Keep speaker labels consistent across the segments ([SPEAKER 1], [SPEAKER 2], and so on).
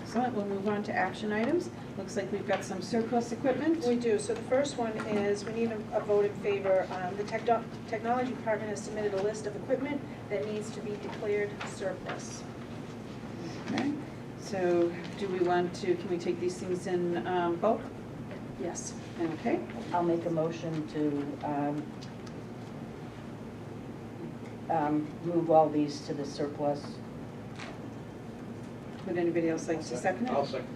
[SPEAKER 1] Excellent, we'll move on to action items. Looks like we've got some surplus equipment.
[SPEAKER 2] We do, so the first one is, we need a- a vote in favor. Um, The techno- Technology Department has submitted a list of equipment that needs to be declared surplus.
[SPEAKER 1] Okay. So do we want to, can we take these things in um, bulk?
[SPEAKER 2] Yes.
[SPEAKER 1] Okay,
[SPEAKER 3] I'll make a motion to um, um, move all these to the surplus.
[SPEAKER 1] would anybody else like to second it?
[SPEAKER 4] I'll second.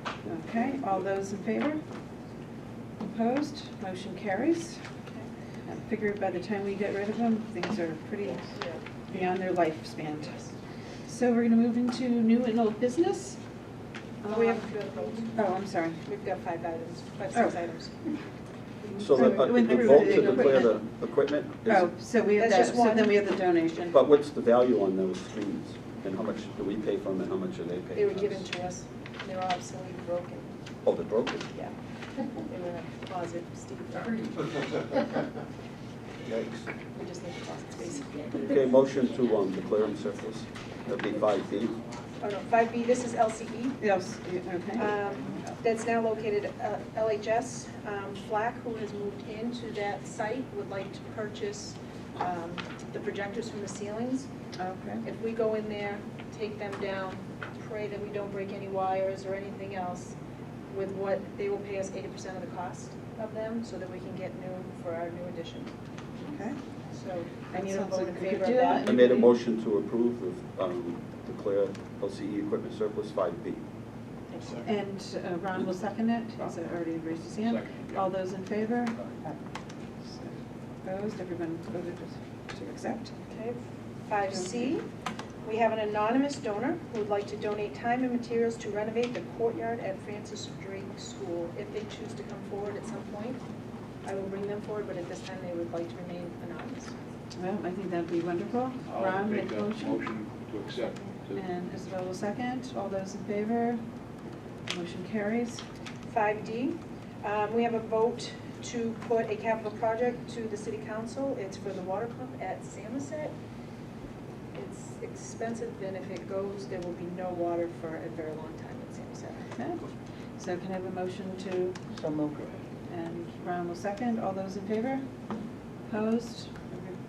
[SPEAKER 1] Okay, all those in favor? Opposed? Motion carries. I figure by the time we get rid of them, things are pretty beyond their lifespan. So we're gonna move into new and old business.
[SPEAKER 2] We have,
[SPEAKER 1] Oh, I'm sorry.
[SPEAKER 2] we've got five items, five, six
[SPEAKER 1] Oh.
[SPEAKER 2] items.
[SPEAKER 5] So the, uh,
[SPEAKER 1] Sorry, we went
[SPEAKER 5] the
[SPEAKER 1] through
[SPEAKER 5] vote
[SPEAKER 1] the
[SPEAKER 5] to declare the
[SPEAKER 1] equipment.
[SPEAKER 5] equipment
[SPEAKER 1] Oh,
[SPEAKER 5] is,
[SPEAKER 1] so we have
[SPEAKER 2] That's
[SPEAKER 1] that,
[SPEAKER 2] just
[SPEAKER 1] so
[SPEAKER 2] one.
[SPEAKER 1] then we have the
[SPEAKER 2] Oh.
[SPEAKER 1] donation.
[SPEAKER 5] but what's the value on those screens? And how much do we pay for them and how much do they pay?
[SPEAKER 2] They were
[SPEAKER 5] us?
[SPEAKER 2] given to us, they were obsolete, broken,
[SPEAKER 5] Oh, they're broken.
[SPEAKER 2] yeah. They were in a closet, Steve,
[SPEAKER 4] Yikes.
[SPEAKER 2] we just need a closet space.
[SPEAKER 5] Okay, motion to, um, declare them surplus. That'd be five B.
[SPEAKER 2] Oh, no, five B, this is E. LCE.
[SPEAKER 1] Yes, okay.
[SPEAKER 2] um, that's now located at LHS. Um, Flack, who has moved into that site, would like to purchase um, the projectors from the ceilings.
[SPEAKER 1] Okay.
[SPEAKER 2] If we go in there, take them down, pray that we don't break any wires or anything else with what, they will pay us eighty percent of the cost of them so that we can get new for our new addition.
[SPEAKER 1] Okay.
[SPEAKER 2] So I
[SPEAKER 1] That
[SPEAKER 2] need a
[SPEAKER 1] sounds
[SPEAKER 2] vote
[SPEAKER 1] like
[SPEAKER 2] in
[SPEAKER 1] a good
[SPEAKER 2] favor of
[SPEAKER 1] deal.
[SPEAKER 2] that.
[SPEAKER 5] I made a motion to approve of, um, declare LCE equipment surplus five B.
[SPEAKER 1] And uh, Ron will second it. He's already raised his hand.
[SPEAKER 4] Second, yeah.
[SPEAKER 1] All those in favor?
[SPEAKER 3] Aye.
[SPEAKER 1] Opposed? Everyone voted to- to accept.
[SPEAKER 2] Okay, five C, we have an anonymous donor who would like to donate time and materials to renovate the courtyard at Francis Drake School. If they choose to come forward at some point, I will bring them forward, but at this time, they would like to remain anonymous.
[SPEAKER 1] Well, I think that'd be wonderful.
[SPEAKER 4] I'll
[SPEAKER 1] Ron,
[SPEAKER 4] make
[SPEAKER 1] make a
[SPEAKER 4] a
[SPEAKER 1] motion.
[SPEAKER 4] motion to accept. to-
[SPEAKER 1] And Isabel will second. All those in favor? Motion carries.
[SPEAKER 2] Five D, um, we have a vote to put a capital project to the city council. It's for the water pump at Samoset. It's expensive, and if it goes, there will be no water for a very long time at Samoset.
[SPEAKER 1] Okay. So can I have a motion to,
[SPEAKER 3] So move.
[SPEAKER 1] and Ron will second. All those in favor? Opposed?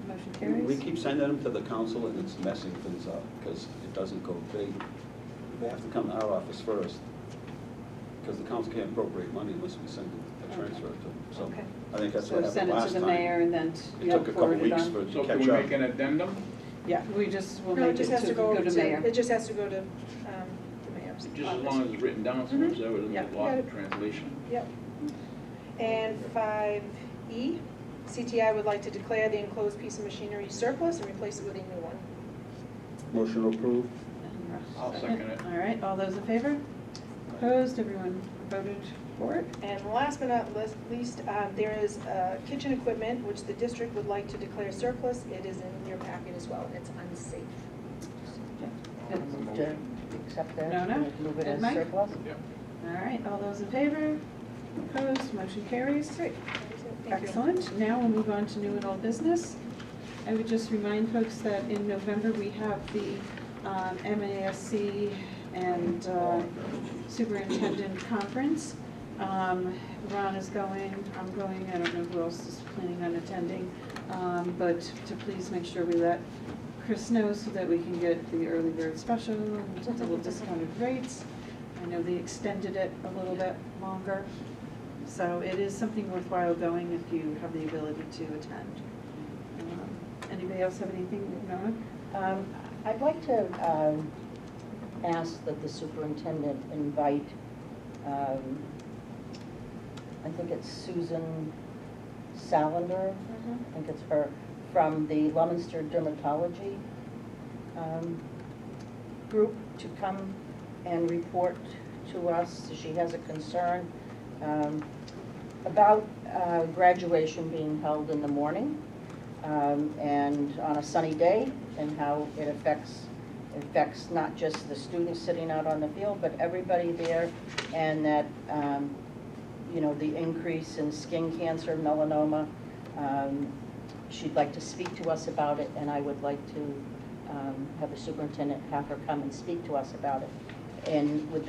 [SPEAKER 1] Motion
[SPEAKER 5] We
[SPEAKER 1] carries.
[SPEAKER 5] keep sending them to the council and it's messing things up because it doesn't go, they, they have to come to our office first. Because the council can't appropriate money unless we send a transfer to them. So
[SPEAKER 2] Okay.
[SPEAKER 5] I think that's
[SPEAKER 1] So
[SPEAKER 5] what
[SPEAKER 1] send
[SPEAKER 5] happened
[SPEAKER 1] it
[SPEAKER 5] last
[SPEAKER 1] to the
[SPEAKER 5] time.
[SPEAKER 1] mayor and then
[SPEAKER 5] It took a couple
[SPEAKER 1] forward it
[SPEAKER 5] weeks
[SPEAKER 1] on.
[SPEAKER 5] for it
[SPEAKER 4] So
[SPEAKER 5] to
[SPEAKER 4] can we
[SPEAKER 5] catch
[SPEAKER 4] make
[SPEAKER 5] up.
[SPEAKER 4] an addendum?
[SPEAKER 1] Yeah, we just will
[SPEAKER 2] No, it
[SPEAKER 1] make it
[SPEAKER 2] just has
[SPEAKER 1] to
[SPEAKER 2] to go
[SPEAKER 1] go
[SPEAKER 2] over
[SPEAKER 1] to
[SPEAKER 2] to,
[SPEAKER 1] mayor.
[SPEAKER 2] it just has to go to um, the mayor's
[SPEAKER 4] Just as long
[SPEAKER 2] office.
[SPEAKER 4] as it's written down, so it's there with
[SPEAKER 1] Mm-hmm. Yeah.
[SPEAKER 4] a lot of translation.
[SPEAKER 2] Yep. And five E, CTI would like to declare the enclosed piece of machinery surplus and replace it with a new one.
[SPEAKER 5] Motion approved.
[SPEAKER 1] And Ron
[SPEAKER 4] I'll second it.
[SPEAKER 1] All right, all those in favor? Opposed? Everyone voted for it?
[SPEAKER 2] And last but not least- least, um, there is uh, kitchen equipment, which the district would like to declare surplus. It is in your packet as well, and it's unsafe.
[SPEAKER 3] I'll Move to accept that.
[SPEAKER 1] No, no.
[SPEAKER 3] Move it
[SPEAKER 1] And
[SPEAKER 3] as
[SPEAKER 1] Mike?
[SPEAKER 3] surplus.
[SPEAKER 4] Yep.
[SPEAKER 1] All right, all those in favor? Opposed, motion carries.
[SPEAKER 2] Great. That is it. Thank you.
[SPEAKER 1] Excellent, now we'll move on to new and old business. I would just remind folks that in November, we have the um, MASC and uh, Superintendent Conference. Um, Ron is going, I'm going, I don't know who else is planning on attending, um, but to please make sure we let Chris know so that we can get the early bird special, and double discounted rates. I know they extended it a little bit longer, so it is something worthwhile going if you have the ability to attend. Um, Anybody else have anything, Nona?
[SPEAKER 3] Um, I'd like to um, ask that the superintendent invite, um, I think it's Susan Salander,
[SPEAKER 2] Mm-hmm.
[SPEAKER 3] I think it's her, from the Leominster Dermatology um, Group to come and report to us. She has a concern um, about uh, graduation being held in the morning um, and on a sunny day, and how it affects, affects not just the students sitting out on the field, but everybody there, and that, um, you know, the increase in skin cancer, melanoma. um, She'd like to speak to us about it, and I would like to um, have the superintendent have her come and speak to us about it, and with